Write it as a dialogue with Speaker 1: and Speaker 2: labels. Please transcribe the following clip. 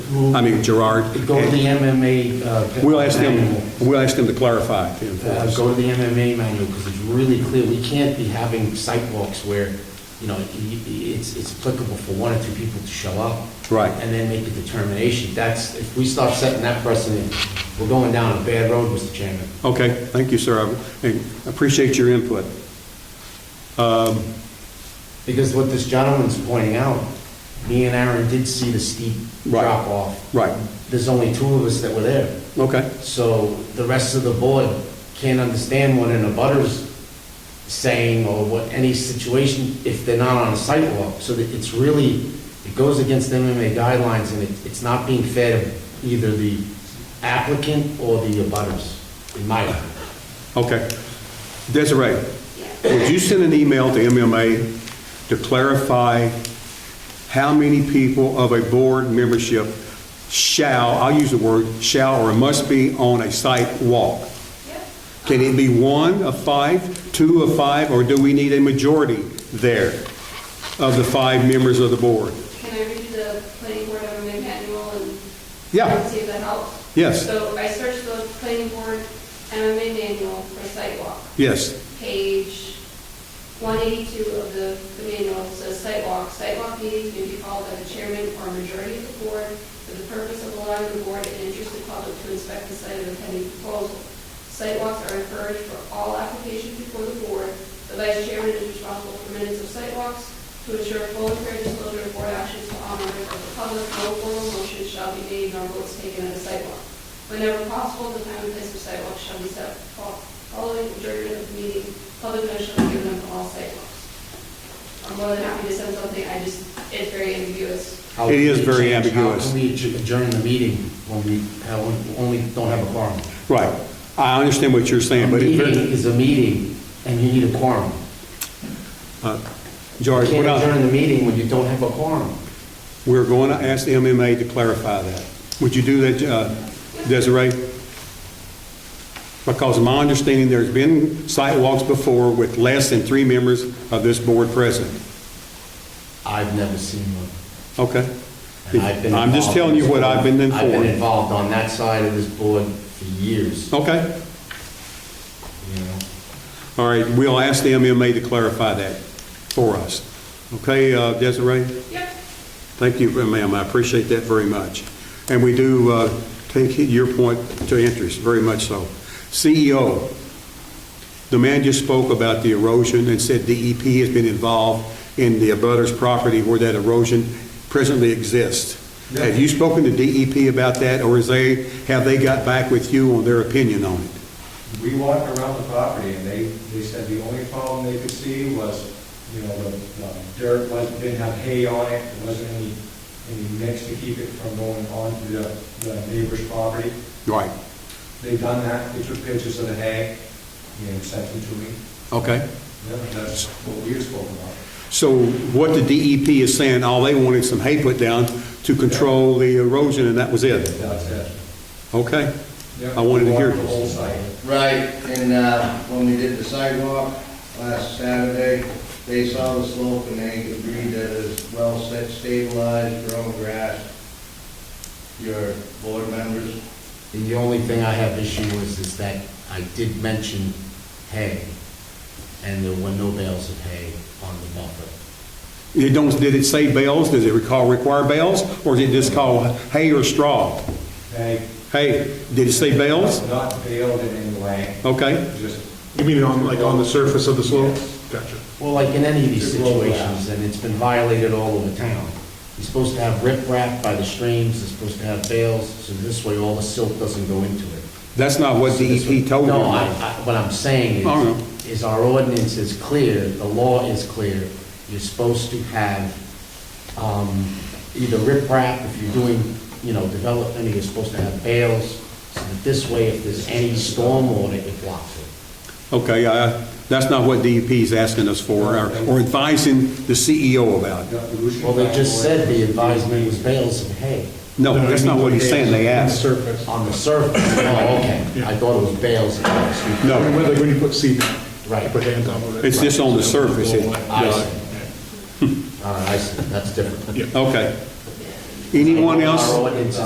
Speaker 1: rule.
Speaker 2: I mean Gerard.
Speaker 1: Go to the MMA. uh,
Speaker 2: We'll ask
Speaker 1: manual.
Speaker 2: them, we'll ask them to clarify.
Speaker 1: Uh, Go to the MMA manual, because it's really clear, we can't be having sidewalks where, you know, y- y- it's, it's applicable for one or two people to show up.
Speaker 2: Right.
Speaker 1: And then make a determination, that's, if we start setting that precedent, we're going down a bad road, Mr. Chairman.
Speaker 2: Okay, thank you, sir. I I appreciate your input.
Speaker 1: Because what this gentleman's pointing out, me and Aaron did see the steep
Speaker 2: Right.
Speaker 1: drop off.
Speaker 2: Right,
Speaker 1: There's only two of us that were there.
Speaker 2: okay,
Speaker 1: So the rest of the board can't understand what an abutter's saying or what any situation if they're not on a sidewalk. So that it's really, it goes against MMA guidelines and it- it's not being fair to either the applicant or the abutters, in my opinion.
Speaker 2: okay. Desiree, would you send an email to MMA to clarify how many people of a board membership shall, I'll use the word, shall or must be on a site walk? Can it be one of five, two of five, or do we need a majority there of the five members of the board?
Speaker 3: Can I read you the planning board MMA manual and?
Speaker 2: Yeah.
Speaker 3: See if that helps?
Speaker 2: Yes.
Speaker 3: So I searched the planning board MMA manual for sidewalk.
Speaker 2: Yes,
Speaker 3: Page 182 of the the manual says sidewalk. Sidewalk meetings may be called by the chairman or majority of the board for the purpose of allowing the board and interested public to inspect the site of a pending proposal. Sidewalks are encouraged for all applications before the board. The vice chairman is responsible for minutes of sidewalks to ensure full and fair disclosure of board actions to all members of the public. No formal motion shall be made nor votes taken at a sidewalk. Whenever possible, the time and place of sidewalks shall be set fo- following adjournment of the meeting. Public notice shall be given on all sidewalks. I'm more than happy to send something, I just, it's very ambiguous.
Speaker 1: How
Speaker 2: It is
Speaker 1: can we
Speaker 2: very
Speaker 1: change-
Speaker 2: ambiguous.
Speaker 1: How can we adj- adjourn the meeting when we have- only don't have a quorum?
Speaker 2: right. I understand what you're
Speaker 1: A
Speaker 2: saying, but
Speaker 1: meeting
Speaker 2: it-
Speaker 1: is a meeting and you need a quorum. You
Speaker 2: uh, George,
Speaker 1: can't
Speaker 2: what I-
Speaker 1: adjourn the meeting when you don't have a quorum.
Speaker 2: we're going to ask the MMA to clarify that. Would you do that, uh, Desiree? Because my understanding, there's been sidewalks before with less than three members of this board present.
Speaker 1: I've never seen one.
Speaker 2: Okay?
Speaker 1: And I've been
Speaker 2: I'm just
Speaker 1: involved
Speaker 2: telling
Speaker 1: in
Speaker 2: you
Speaker 1: this
Speaker 2: what
Speaker 1: board.
Speaker 2: I've been
Speaker 1: I've been
Speaker 2: informed.
Speaker 1: involved on that side of this board for years, you
Speaker 2: Okay?
Speaker 1: know.
Speaker 2: All right, we'll ask the MMA to clarify that for us. Okay, uh, Desiree?
Speaker 3: Yep.
Speaker 2: Thank you, ma'am, I appreciate that very much. And we do uh, take your point to interest, very much so. CEO, the man just spoke about the erosion and said DEP has been involved in the abutters property where that erosion presently exists. Have you spoken to DEP about that, or is they, have they got back with you on their opinion on it?
Speaker 4: We walked around the property, and they, they said the only problem they could see was, you know, the the dirt wasn't, didn't have hay on it, there wasn't any, any mix to keep it from going onto the, the neighbor's property.
Speaker 2: Right,
Speaker 4: They done that, they took pictures of the hay, and sent them to me.
Speaker 2: okay.
Speaker 4: Yeah, That's what we were spoken about.
Speaker 2: So what the DEP is saying, all they wanted some hay put down to control the erosion, and that was it?
Speaker 4: That's it.
Speaker 2: Okay?
Speaker 4: Yeah,
Speaker 2: I wanted to
Speaker 4: we
Speaker 2: hear
Speaker 4: walked The
Speaker 2: this.
Speaker 4: whole site.
Speaker 5: Right, and uh, when we did the sidewalk last Saturday, they saw the slope and they agreed that it's well set, stabilized, grown grass. Your board members,
Speaker 1: And the only thing I have issue with is that I did mention hay, and there were no bales of hay on the buffer.
Speaker 2: It don't, did it say bales? Does it recall, require bales? Or did it just call hay or straw?
Speaker 4: They.
Speaker 2: Hay, did it say bales?
Speaker 4: Not baled in any way,
Speaker 2: Okay,
Speaker 4: just
Speaker 6: You mean on, like, on the surface of the slope?
Speaker 4: Yes.
Speaker 6: Gotcha.
Speaker 1: Well, like in any of these
Speaker 4: Just roll it out.
Speaker 1: situations, and it's been violated all over town. You're supposed to have riprap by the streams, you're supposed to have bales, so this way all the silt doesn't go into it.
Speaker 2: that's not what DEP told you.
Speaker 1: No, I, I, what I'm saying
Speaker 2: Oh, no.
Speaker 1: is, is our ordinance is clear, the law is clear. You're supposed to have, um, either riprap, if you're doing, you know, development, you're supposed to have bales, so that this way, if there's any storm water, it blocks it.
Speaker 2: Okay, I- that's not what DEP is asking us for, or or advising the CEO about.
Speaker 4: the pollution.
Speaker 1: Well, they just said the advisement was
Speaker 4: advisement.
Speaker 1: bales and hay
Speaker 2: No, that's not what he's saying, they asked.
Speaker 6: Surface.
Speaker 1: on the surface. Oh, okay, I thought it was bales and hay, excuse me.
Speaker 2: No.
Speaker 6: Like when you put cement.
Speaker 1: Right.
Speaker 6: You Put hay on top of it.
Speaker 2: It's just on the surface. It-
Speaker 1: I see. All right, I see, that's different.
Speaker 6: Yeah.
Speaker 2: Okay. Anyone else?
Speaker 1: Our ordinance